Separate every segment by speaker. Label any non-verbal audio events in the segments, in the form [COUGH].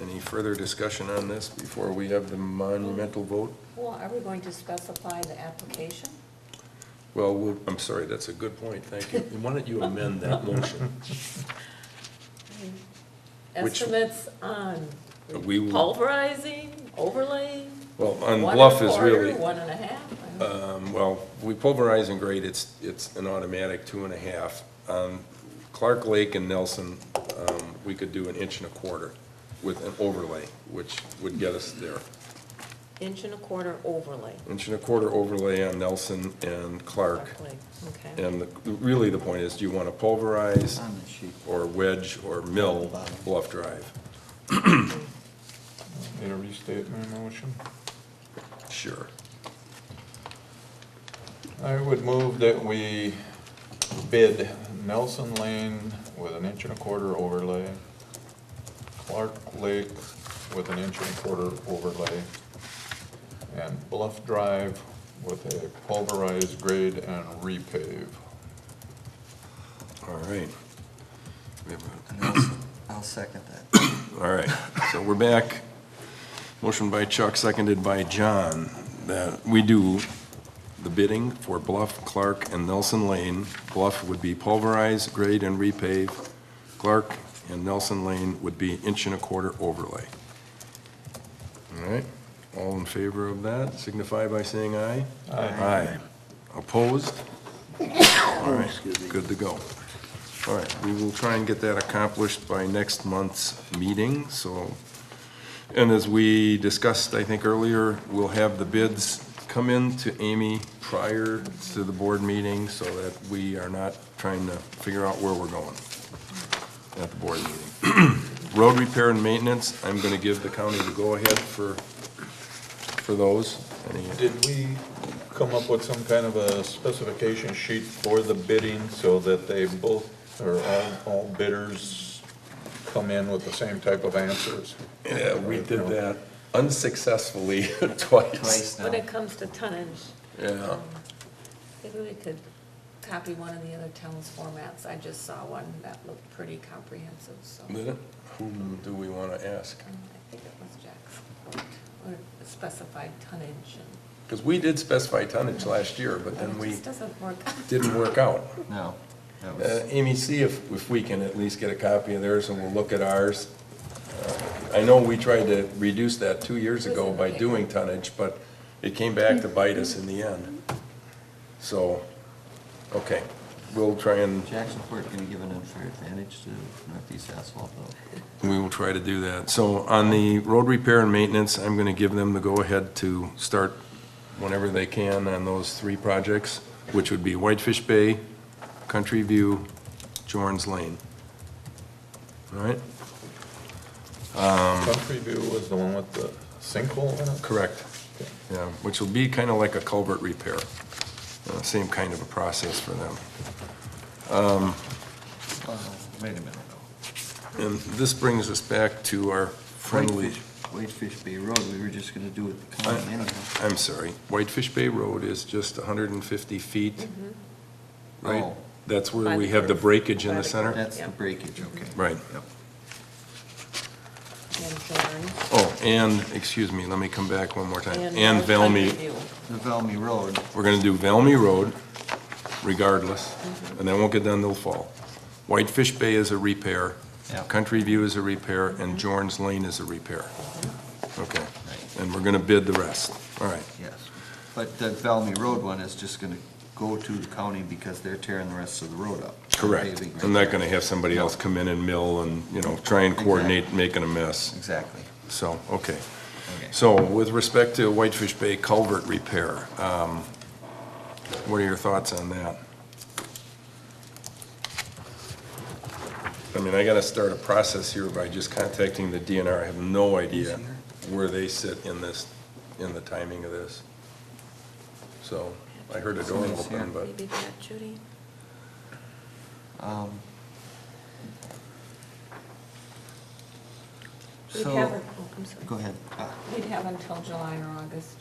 Speaker 1: Any further discussion on this before we have the monumental vote?
Speaker 2: Well, are we going to specify the application?
Speaker 1: Well, we'll- I'm sorry, that's a good point, thank you. [LAUGHS] Why don't you amend that motion? Which-
Speaker 2: Estimates on
Speaker 1: We will-
Speaker 2: pulverizing, overlay?
Speaker 1: Well, on
Speaker 2: one
Speaker 1: bluff
Speaker 2: and a
Speaker 1: is
Speaker 2: quarter,
Speaker 1: really,
Speaker 2: One and a half? I don't-
Speaker 1: um, well, we pulverize and grade, it's, it's an automatic two and a half. Um, Clark Lake and Nelson, um, we could do an inch and a quarter with an overlay, which would get us there.
Speaker 2: Inch and a quarter overlay.
Speaker 1: Inch and a quarter overlay on Nelson and Clark.
Speaker 2: roughly, Okay.
Speaker 1: And the- really, the point is, do you want to pulverize
Speaker 3: on the sheet.
Speaker 1: or wedge or mill Bluff Drive?
Speaker 4: Need to restate my motion?
Speaker 1: Sure.
Speaker 4: I would move that we bid Nelson Lane with an inch and a quarter overlay, Clark Lake with an inch and a quarter overlay, and Bluff Drive with a pulverized grade and repave.
Speaker 1: All right. We have a-
Speaker 3: And I'll- I'll second that.
Speaker 1: All right, so we're back. Motion by Chuck, seconded by John, that we do the bidding for Bluff, Clark, and Nelson Lane. Bluff would be pulverized, grade, and repave. Clark and Nelson Lane would be inch and a quarter overlay. All right, all in favor of that, signify by saying aye. Aye. Opposed? All right, good to go. All right, we will try and get that accomplished by next month's meeting, so. And as we discussed, I think earlier, we'll have the bids come in to Amy prior to the board meeting so that we are not trying to figure out where we're going at the board meeting. [CLEARS THROAT] Road repair and maintenance, I'm gonna give the county the go-ahead for, for those. Any-
Speaker 4: Did we come up with some kind of a specification sheet for the bidding so that they both, or all, all bidders come in with the same type of answers?
Speaker 1: Yeah, we did that unsuccessfully [LAUGHS] twice.
Speaker 3: Twice
Speaker 2: When
Speaker 3: now.
Speaker 2: it comes to tonnage, um,
Speaker 1: Yeah,
Speaker 2: maybe we could copy one of the other towns' formats. I just saw one that looked pretty comprehensive, so. um,
Speaker 1: Did it? Whom do we want to ask?
Speaker 2: I think it was Jack's point, or specified tonnage and.
Speaker 1: Because we did specify tonnage last year, but then
Speaker 2: It
Speaker 1: we
Speaker 2: just doesn't work.
Speaker 1: didn't work out.
Speaker 3: No, that
Speaker 1: Uh,
Speaker 3: was,
Speaker 1: Amy, see if, if we can at least get a copy of theirs and we'll look at ours. Uh, I know we tried to reduce that two years ago by doing tonnage, but it came back to bite us in the end. So, okay, we'll try and
Speaker 3: Jacksonport going to give an unfair advantage to Northeast Asphalt though.
Speaker 1: We will try to do that. So on the road repair and maintenance, I'm going to give them the go-ahead to start whenever they can on those three projects, which would be Whitefish Bay, Country View, Jorn's Lane. All right?
Speaker 4: Country View was the one with the sinkhole in it?
Speaker 1: Correct. Yeah, which will be kind of like a culvert repair. Uh, Same kind of a process for them.
Speaker 3: Well, Uh, Wait a minute
Speaker 1: And this brings us back to our
Speaker 3: though.
Speaker 1: friendly,
Speaker 3: Whitefish- Whitefish Bay Road, we were just going to do it the county anyhow.
Speaker 1: I'm sorry, Whitefish Bay Road is just 150 feet, right?
Speaker 3: Oh,
Speaker 1: That's where
Speaker 2: By
Speaker 1: we
Speaker 2: the
Speaker 1: have the
Speaker 2: curve.
Speaker 1: breakage in
Speaker 2: By
Speaker 1: the
Speaker 2: the
Speaker 1: center?
Speaker 3: That's the breakage, okay.
Speaker 1: Right.
Speaker 3: Yep.
Speaker 2: [LAUGHS] And Jordan.
Speaker 1: Oh, and, excuse me, let me come back one more time. And
Speaker 2: North Country
Speaker 1: Velmy,
Speaker 2: View.
Speaker 3: The Valmy Road,
Speaker 1: we're gonna do Velmy Road regardless, and that won't get done till fall. Whitefish Bay is a repair.
Speaker 3: Yeah.
Speaker 1: Country View is a repair, and
Speaker 2: Mm-hmm.
Speaker 1: Jorn's Lane is a repair. Okay,
Speaker 3: Right.
Speaker 1: and we're gonna bid the rest. All right,
Speaker 3: yes. But the Valmy Road one is just going to go to the county because they're tearing the rest of the road up.
Speaker 1: correct.
Speaker 3: Paving right
Speaker 1: I'm not
Speaker 3: there.
Speaker 1: gonna have somebody else come in and mill and, you know, try and coordinate making a mess.
Speaker 3: Exactly,
Speaker 1: So, okay.
Speaker 3: okay.
Speaker 1: So with respect to Whitefish Bay culvert repair, um, what are your thoughts on that? I mean, I gotta start a process here by just contacting the DNR. I have no idea where they sit in this, in the timing of this. So I heard a door
Speaker 3: Someone's here.
Speaker 1: open, but
Speaker 2: Maybe that Judy.
Speaker 3: Um,
Speaker 2: We'd
Speaker 3: So.
Speaker 2: have, oh, I'm sorry.
Speaker 3: Go ahead. Uh,
Speaker 2: We'd have until July or August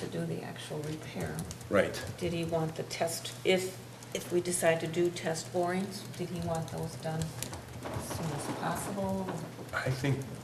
Speaker 2: to do the actual repair.
Speaker 1: right.
Speaker 2: Did he want the test, if, if we decide to do test borings, did he want those done as soon as possible.
Speaker 1: I think